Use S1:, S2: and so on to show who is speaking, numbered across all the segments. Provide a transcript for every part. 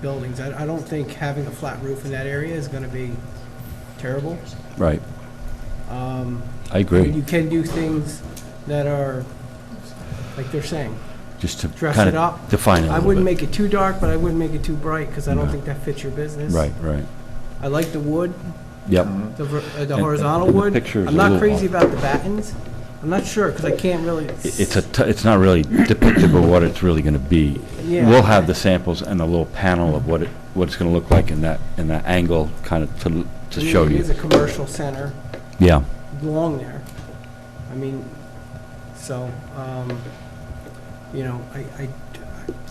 S1: buildings. I, I don't think having a flat roof in that area is gonna be terrible.
S2: Right. I
S1: You
S2: agree,
S1: Um, can do things that are, like they're saying,
S2: just to
S1: dress
S2: kind
S1: it up.
S2: of define it a
S1: I
S2: little
S1: wouldn't
S2: bit.
S1: make it too dark, but I wouldn't make it too bright, because I don't
S2: No.
S1: think that fits your business.
S2: Right, right,
S1: I like the wood,
S2: yep,
S1: the ver- uh, the
S2: And-
S1: horizontal
S2: and the
S1: wood.
S2: picture's a
S1: I'm not
S2: little
S1: crazy
S2: off.
S1: about the battens. I'm not sure, because I can't really.
S2: It- it's a, t- it's not really depictable what it's really gonna be.
S1: Yeah.
S2: We'll have the samples and a little panel of what it, what it's gonna look like in that, in that angle, kind of to, to
S1: I mean,
S2: show
S1: It is
S2: you.
S1: a commercial center
S2: Yeah,
S1: along there. I mean, so, um, you know, I, I,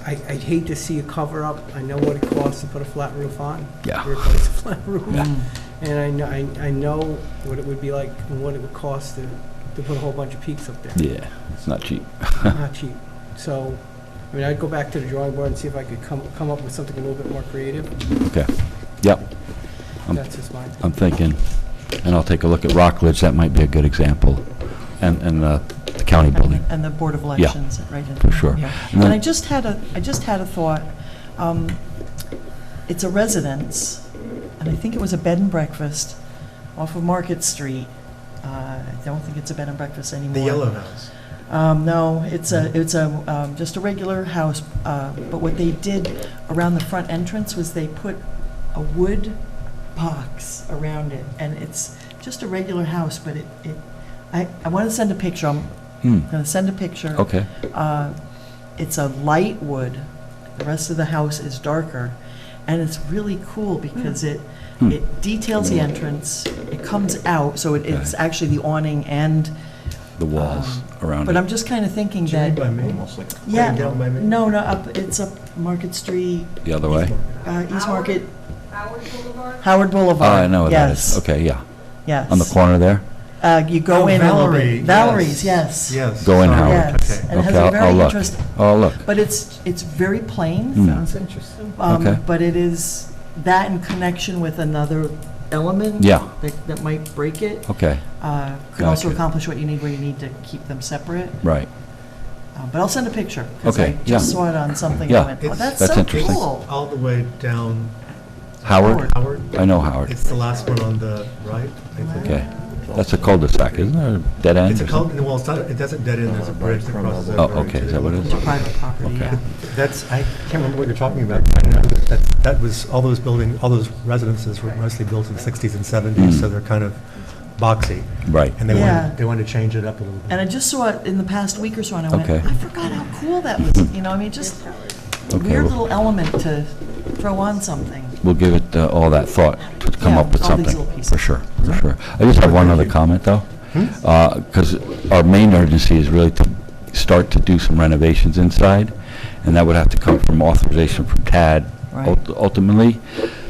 S1: I- I'd hate to see a cover-up. I know what it costs to put a flat roof on.
S2: Yeah.
S1: to Replace a flat roof.
S2: Yeah.
S1: And I know, I, I know what it would be like and what it would cost to, to put a whole bunch of peaks up there.
S2: yeah, it's not cheap.
S1: Not cheap. So, I mean, I'd go back to the drawing board and see if I could come, come up with something a little bit more creative.
S2: Okay, yep, Um,
S1: That's just mine.
S2: I'm thinking, and I'll take a look at Rockledge, that might be a good example, and, and uh, the county building.
S3: And the Board of Elections, right? in-
S2: for sure.
S3: yeah.
S2: And
S3: And I
S2: then-
S3: just had a, I just had a thought. Um, It's a residence, and I think it was a bed and breakfast off of Market Street. Uh, I don't think it's a bed and breakfast anymore.
S4: The Yellow House.
S3: Um, no, it's
S2: Mm-hmm.
S3: a, it's a, um, just a regular house, uh, but what they did around the front entrance was they put a wood box around it, and it's just a regular house, but it, it, I, I wanna send a picture, I'm
S2: Hmm,
S3: gonna send a picture.
S2: okay,
S3: Uh, It's a light wood, the rest of the house is darker, and it's really cool because it,
S2: Hmm.
S3: it details the entrance, it comes out, so it- it's
S2: Okay.
S3: actually the awning and
S2: the walls
S3: um,
S2: around
S3: But
S2: it.
S3: I'm just kind of thinking
S4: Jimmy
S3: that,
S4: by me.
S3: yeah,
S4: Right down by me.
S3: no, no, up, it's up Market Street,
S2: The other way?
S3: uh, East Market,
S5: Howard Boulevard?
S3: Howard
S2: Oh,
S3: Boulevard.
S2: I know what that is, okay, yeah,
S3: Yes,
S2: on the
S3: yes.
S2: corner there?
S3: Uh, You go
S4: Oh,
S3: in a little
S4: Valerie.
S3: bit. Valerie's, yes.
S4: Yes.
S2: Go in,
S4: sorry.
S2: Howard.
S3: Yes,
S4: Okay.
S3: and it has
S2: Okay,
S3: a
S2: I'll- I'll
S3: very
S2: look.
S3: interesting,
S2: Oh, look,
S3: but it's, it's very plain.
S2: Hmm.
S4: Sounds interesting.
S3: Um,
S2: Okay.
S3: But it is that in connection with another element.
S2: Yeah.
S3: That, that might break it.
S2: okay,
S3: Uh, Could also
S2: Gotcha.
S3: accomplish what you need where you need to keep them separate.
S2: right,
S3: Uh, But I'll send a picture. 'cause
S2: Okay,
S3: I just
S2: yeah.
S3: saw it on something
S2: Yeah.
S3: and went, oh,
S4: It's-
S3: that's
S2: That's
S3: so
S2: interesting.
S3: cool.
S4: All the way down
S2: Howard,
S4: Howard.
S2: I know Howard,
S4: It's the last one on the right, I think.
S2: okay, that's a cul-de-sac, isn't it, a dead end?
S4: It's a
S2: or something?
S4: cul, well, it's not, it doesn't dead end, there's a bridge that crosses over.
S2: Oh, okay, is that what it
S3: It's a
S2: is?
S3: private property,
S2: Okay.
S3: yeah.
S4: That's, I can't remember what you're talking about. right now, but That that was, all those building, all those residences were mostly built in the 60s and
S2: Hmm.
S4: 70s, so they're kind of boxy.
S2: Right,
S4: And they
S3: Yeah.
S4: wanted, they wanted to change it up a little bit.
S3: And I just saw it in the past week or so, and I went,
S2: Okay.
S3: I forgot how cool that was, you know, I mean, just a
S2: Okay,
S3: weird
S2: well-
S3: little element to throw on something.
S2: we'll give it uh, all that thought to come
S3: Yeah,
S2: up with
S3: all these
S2: something.
S3: little pieces. Mm-hmm. Hmm?
S2: For sure, for sure. I just have one other comment, though. Because our main urgency is really to start to do some renovations inside, and that would have to come from authorization from TAD
S3: Right.
S2: ult- ultimately.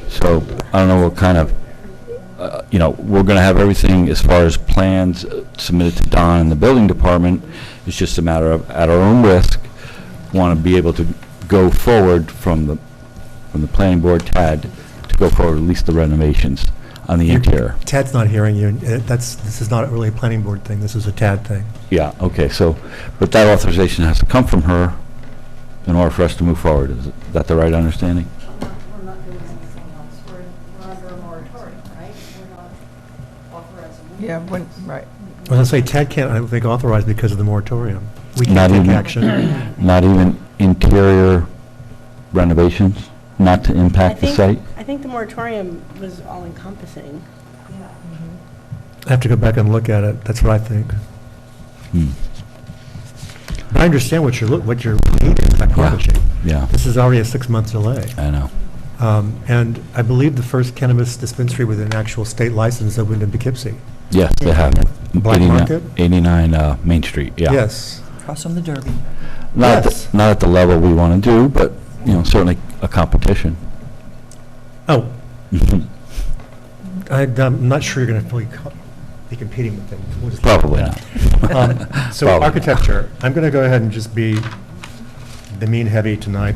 S2: So I don't know what kind of, uh, you know, we're going to have everything as far as plans uh, submitted to Don and the building department. It's just a matter of, at our own risk, want to be able to go forward from the, from the planning board, TAD, to go forward, at least the renovations on the
S4: You-
S2: interior.
S4: Tad's not hearing you, and, uh, that's, this is not really a planning board thing, this is a Tad thing.
S2: Yeah, okay, so, but that authorization has to come from her in order for us to move forward. Is that the right understanding?
S5: We're not doing anything else. We're, we're under a moratorium, right? We're not authorizing.
S6: Yeah, when, right.
S4: I was going to say, Tad can't, I don't think, authorize because of the moratorium. We
S2: Not
S4: can't take
S2: even-
S4: action.
S2: Not even interior renovations, not to
S7: I
S2: impact the
S7: think-
S2: site?
S7: I think the moratorium was all encompassing.
S5: Yeah.
S4: I have to go back and look at it, that's what I think.
S2: Hmm,
S4: But I understand what you're, look- what you're needing by Quantico.
S2: Yeah,
S4: This is already a six-month delay.
S2: I know.
S4: Um, And I believe the first cannabis dispensary with an actual state license opened in Poughkeepsie.
S2: Yes, they have.
S4: Black
S2: 89
S4: market?
S2: 89 uh, Main Street, yeah.
S4: Yes.
S3: Across from the Derby.
S2: Not, at
S4: Yes.
S2: the- not at the level we want to do, but, you know, certainly a competition.
S4: Oh, I- I'm not sure you're going to fully co- be competing with them. We'll just-
S2: Probably not.
S4: Um, So
S2: Probably.
S4: architecture, I'm going to go ahead and just be the mean heavy tonight.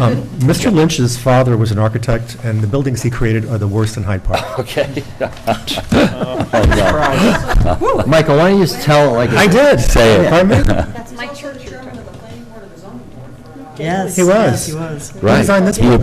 S4: Um, Mr. Lynch's father was an architect, and the buildings he created are the worst in Hyde Park.
S2: Okay.
S8: Oh, Michael, why don't you just tell it like
S4: I
S8: it's
S4: did.
S2: Say it.
S4: Pardon me?
S5: That's my church. Chairman of the planning board of the zoning board for a while.
S3: Yes.
S4: He was.
S3: Yes, he was.
S2: Right.
S4: designed this
S2: You were